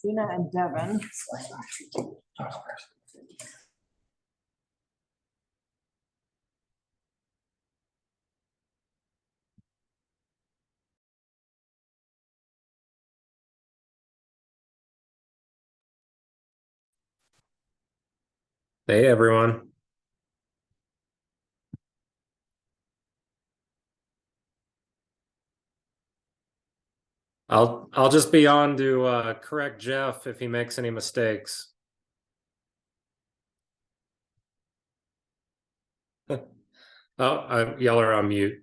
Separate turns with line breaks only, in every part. Gina and Devin.
Hey, everyone. I'll I'll just be on to uh, correct Jeff if he makes any mistakes. Oh, uh, y'all are on mute.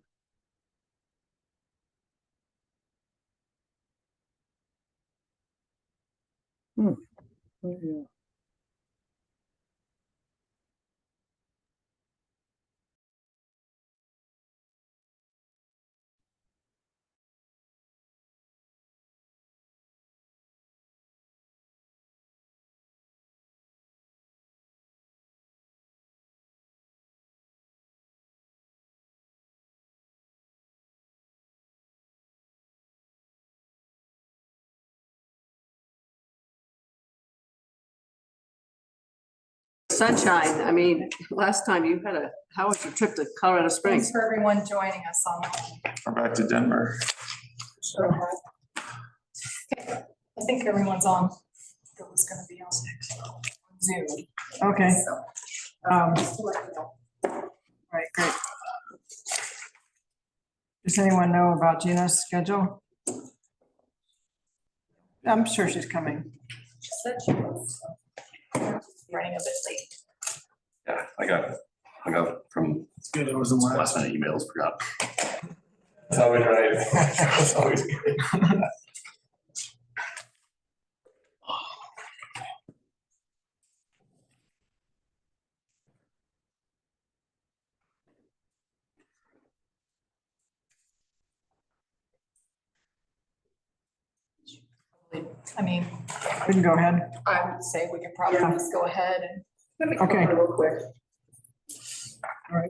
Sunshine, I mean, last time you had a, how was your trip to Colorado
Thanks
Springs?
for everyone joining us online.
We're back to Denver.
Okay, I think everyone's on. It was gonna be on Zoom.
Okay.
so,
Um,
just to let you know.
right, great. Does anyone know about Gina's schedule? I'm sure she's coming.
She said she was uh, running a bit late.
Yeah, I got hung up from
Yeah, there was a
last minute emails, forgot.
That's how we drive.
It's always-
I mean,
We can go ahead.
I would say we could probably
Yeah.
just go ahead and.
Okay.
Real quick.
Are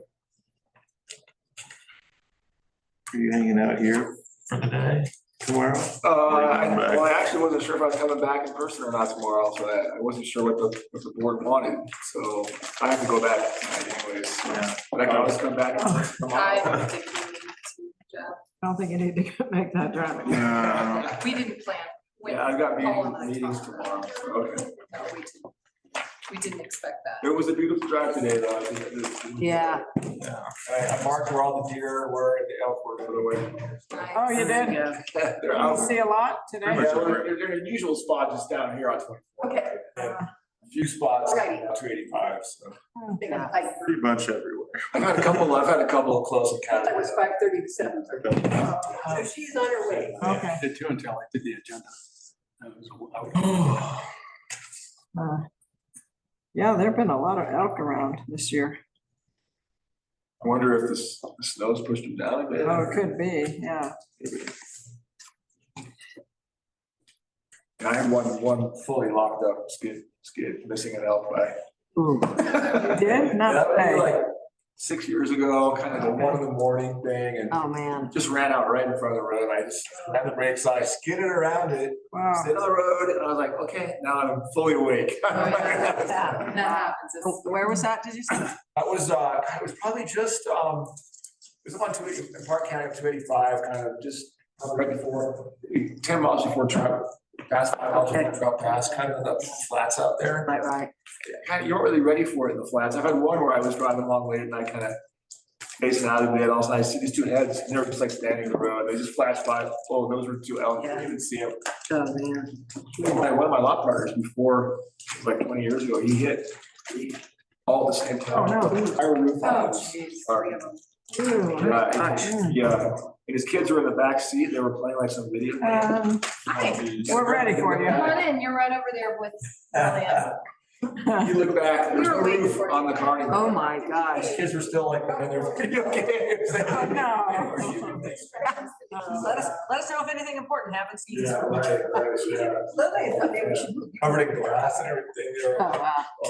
you hanging out here
For the day.
tomorrow?
Uh, I-
Bring them back.
well, I actually wasn't sure if I was coming back in person or not tomorrow, so I, I wasn't sure what the, what the board wanted, so I have to go back tonight anyways.
Yeah.
But I can always come back
I
tomorrow.
don't think we need to, uh,
I don't think you need to make that driving.
Yeah.
We didn't plan. when
Yeah, I've got
Paul and I
meeting- meetings
talked.
tomorrow, okay.
No, we didn't. We didn't expect that.
It was a beautiful drive today, though. I think it was-
Yeah.
I I marked where all the deer were and the elk were for the way.
Oh, you did?
Yeah.
They're
You
out.
See a lot today?
Pretty much.
Yeah, they're, they're in a usual spot just down here on twenty-four.
Okay.
A Few spots,
Alrighty.
two eighty-five, so.
Big on height.
Pretty much everywhere.
I've had a couple, I've had a couple of close encounters.
That was five thirty to seven thirty. So she's on her way.
Hmm. Okay.
Did too until I did the agenda. That was- I was-
Uh, Yeah, there've been a lot of elk around this year.
I wonder if the s- the snow's pushed them down a bit.
Oh, it could be, yeah.
I had one, one fully locked up skid, skid, missing an elk by.
Oh,
You
did? Not
That would
today.
be like six years ago, kind of the one in the morning thing
Oh, man.
and just ran out right in front of the road. I just had the brakes on, I skidded around it,
Wow.
stayed on the road and I was like, okay, now I'm fully awake.
Oh, yeah, That
That
that happens. It's-
Where was that, did you say?
was, uh, it was probably just, um, it was up on two eighty, in Park County, two eighty-five, kind of just right before, ten miles before travel, past, five miles before travel pass, kind of the flats out there.
Right, right.
kind of, you weren't really ready for it in the flats. I've had one where I was driving along late and I kind of facing out of it, all of a sudden I see these two heads, and they're just like standing in the road, they just flashed by, oh, those were two elk, I didn't even see them.
Oh, man.
My, one of my lot partners before, like twenty years ago, he hit three all at the same time.
Oh, no.
Entire roof
Oh,
on him.
jeez.
Sorry.
Three of them.
Uh, and- Yeah, and his kids were in the back seat. they were playing like some video. game.
Um, We're ready for you.
Come on in, you're right over there with Elliot.
Um,
You look back, there's
We
no
were waiting
roof
for you.
on the car anymore.
Oh, my gosh.
His kids were still like, in their video games.
No.
Let us, let us know if anything important happens. to you this
Yeah,
week.
right, right, yeah.
Lily, I thought maybe we should
Covered in glass and everything. they were-
Oh, wow.